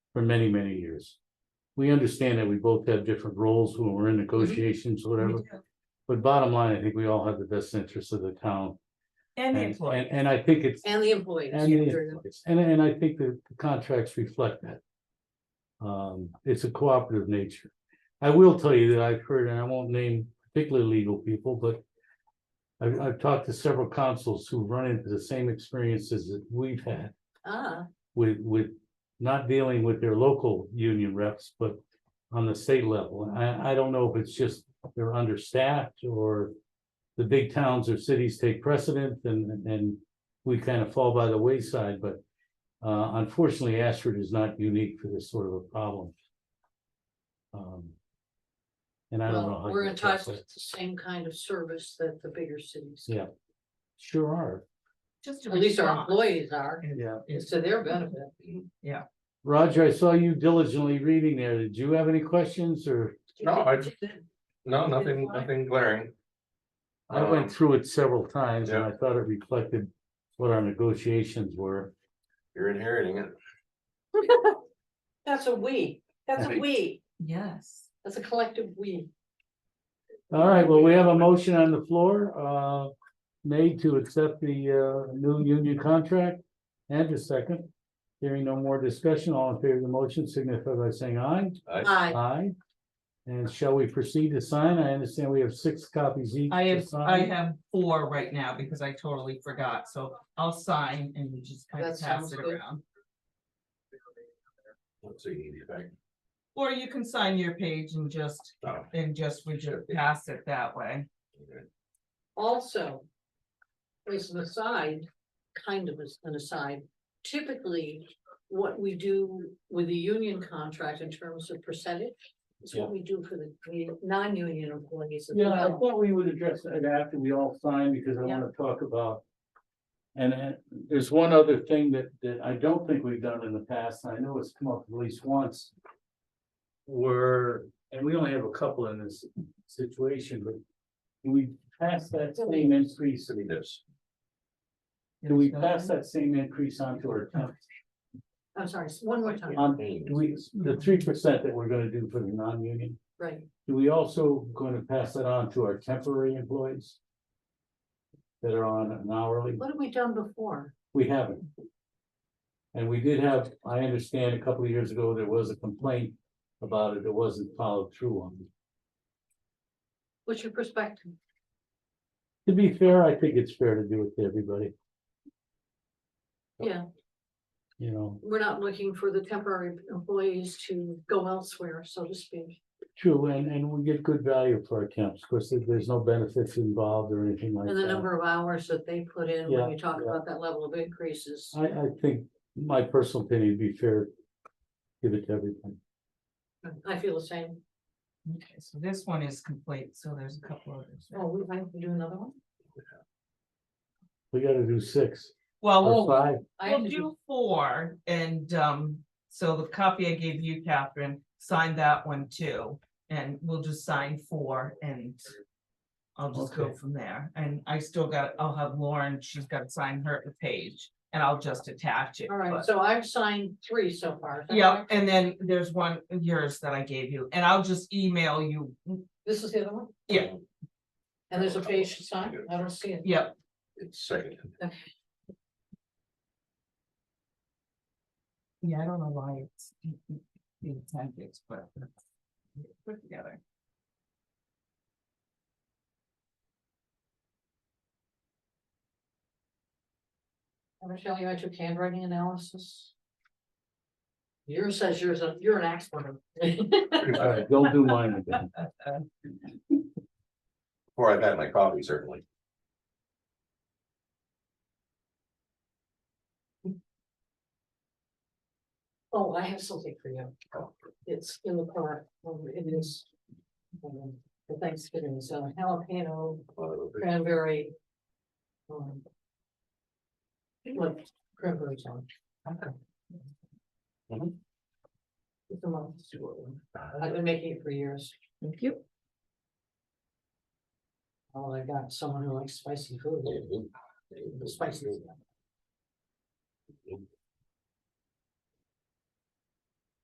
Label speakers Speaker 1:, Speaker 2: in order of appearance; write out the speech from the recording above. Speaker 1: for many, many years. We understand that we both have different roles when we're in negotiations, whatever,
Speaker 2: Mm-hmm. We do.
Speaker 1: but bottom line, I think we all have the best interest of the town.
Speaker 2: And the
Speaker 1: And,
Speaker 2: employee.
Speaker 1: and, and I think it's,
Speaker 3: And the employees.
Speaker 1: and,
Speaker 3: during
Speaker 1: the-
Speaker 3: the-
Speaker 1: and, and I think the the contracts reflect that. Um, it's a cooperative nature. I will tell you that I've heard, and I won't name particular legal people, but. I've, I've talked to several councils who run into the same experiences that we've had
Speaker 3: Ah,
Speaker 1: with, with not dealing with their local union reps, but on the state level. And I, I don't know if it's just they're understaffed or the big towns or cities take precedent and, and we kind of fall by the wayside, but uh, unfortunately, Ashford is not unique for this sort of a problem. Um, And I don't know.
Speaker 3: well,
Speaker 1: how
Speaker 3: we're
Speaker 1: you
Speaker 3: in
Speaker 1: address
Speaker 3: touch with
Speaker 1: that.
Speaker 3: the same kind of service that the bigger cities.
Speaker 1: Yeah. Sure are.
Speaker 2: Just to
Speaker 3: At least our
Speaker 2: respond
Speaker 3: employees are,
Speaker 1: Yeah.
Speaker 3: it's to their benefit.
Speaker 1: Roger, I saw you diligently reading there. Did you have any questions or?
Speaker 4: No, I just- No, nothing,
Speaker 3: Fine.
Speaker 4: nothing glaring.
Speaker 1: I went
Speaker 4: Um,
Speaker 1: through it several times and I thought it reflected what our negotiations were.
Speaker 4: You're inheriting it.
Speaker 3: That's a we, that's a
Speaker 4: Right.
Speaker 3: we,
Speaker 2: Yes.
Speaker 3: that's a collective we.
Speaker 1: All right, well, we have a motion on the floor, uh, made to accept the, uh, new union contract and a second. Hearing no more discussion, all in favor of the motion signify by saying aye.
Speaker 4: I,
Speaker 3: Aye.
Speaker 1: Aye. And shall we proceed to sign? I understand we have six copies each.
Speaker 2: I
Speaker 1: to
Speaker 2: have, I
Speaker 1: sign.
Speaker 2: have four right now because I totally forgot, so I'll sign and you just kind
Speaker 3: That
Speaker 2: of pass
Speaker 3: sounds
Speaker 2: it
Speaker 3: good.
Speaker 2: around.
Speaker 4: let's see, if I-
Speaker 2: Or you can sign your page and just,
Speaker 4: oh,
Speaker 2: and just, we just pass it that way.
Speaker 4: okay.
Speaker 3: Also, as an aside, kind of as an aside, typically what we do with the union contract in terms of percentage is what we do for the commu- non-union employees as
Speaker 1: Yeah, I
Speaker 3: well.
Speaker 1: thought we would address that after we all sign, because I
Speaker 3: Yeah.
Speaker 1: wanna talk about. And uh, there's one other thing that, that I don't think we've done in the past, and I know it's come up at least once. Were, and we only have a couple in this situation, but can we pass that same increase,
Speaker 4: Send me this.
Speaker 1: do we pass that same increase onto our town?
Speaker 3: I'm sorry, s- one more time,
Speaker 1: On, do we, the three percent that we're gonna do for the non-union,
Speaker 3: right,
Speaker 1: do we also gonna pass that on to our temporary employees? That are on an hourly?
Speaker 3: what have we done before?
Speaker 1: We haven't. And we did have, I understand a couple of years ago, there was a complaint about it that wasn't followed through on.
Speaker 3: What's your perspective?
Speaker 1: To be fair, I think it's fair to do it to everybody,
Speaker 3: Yeah,
Speaker 1: you know,
Speaker 3: we're not looking for the temporary employees to go elsewhere, so to speak.
Speaker 1: true, and, and we get good value for our temps, because there's no benefits involved or anything like
Speaker 3: And the
Speaker 1: that.
Speaker 3: number of hours that they put in,
Speaker 1: Yeah,
Speaker 3: when you talk
Speaker 1: yeah.
Speaker 3: about that level of increases.
Speaker 1: I, I think, my personal opinion, would be fair, give it to everybody. Uh,
Speaker 3: I feel the same.
Speaker 2: Okay, so this one is complete, so there's a couple others.
Speaker 3: Oh, we might do another one?
Speaker 1: We gotta do six
Speaker 2: Well,
Speaker 1: or
Speaker 2: we'll,
Speaker 1: five,
Speaker 3: I
Speaker 2: We'll
Speaker 3: had to do-
Speaker 2: do four and um, so the copy I gave you, Catherine, sign that one too. And we'll just sign four and I'll just go
Speaker 1: Okay.
Speaker 2: from there. And I still got, I'll have Lauren, she's got to sign her page and I'll just attach it.
Speaker 3: All right,
Speaker 2: but-
Speaker 3: so I've signed three so far. is that
Speaker 2: Yeah,
Speaker 3: correct?
Speaker 2: and then there's one of yours that I gave you and I'll just email you.
Speaker 3: This is the other one?
Speaker 2: Yeah.
Speaker 3: And there's a page to sign? I don't see it.
Speaker 2: Yep,
Speaker 4: It's second.
Speaker 2: yeah, I don't know why it's being tactics, but it's put together.
Speaker 3: Michelle, you I took handwriting analysis. Yours says yours, a- you're an expert.
Speaker 1: all right, don't do mine again.
Speaker 4: Before I've had my coffee, certainly.
Speaker 3: Oh, I have something for you.
Speaker 4: Oh.
Speaker 3: It's in the car. Um, It is. um, The Thanksgiving, so jalapeno
Speaker 4: Uh,
Speaker 3: cranberry. um, What cranberry on?
Speaker 4: Mhm.
Speaker 3: It's a monster. I've been making it for years.
Speaker 2: Thank you.
Speaker 3: Oh, I got someone who likes spicy food. Spicy.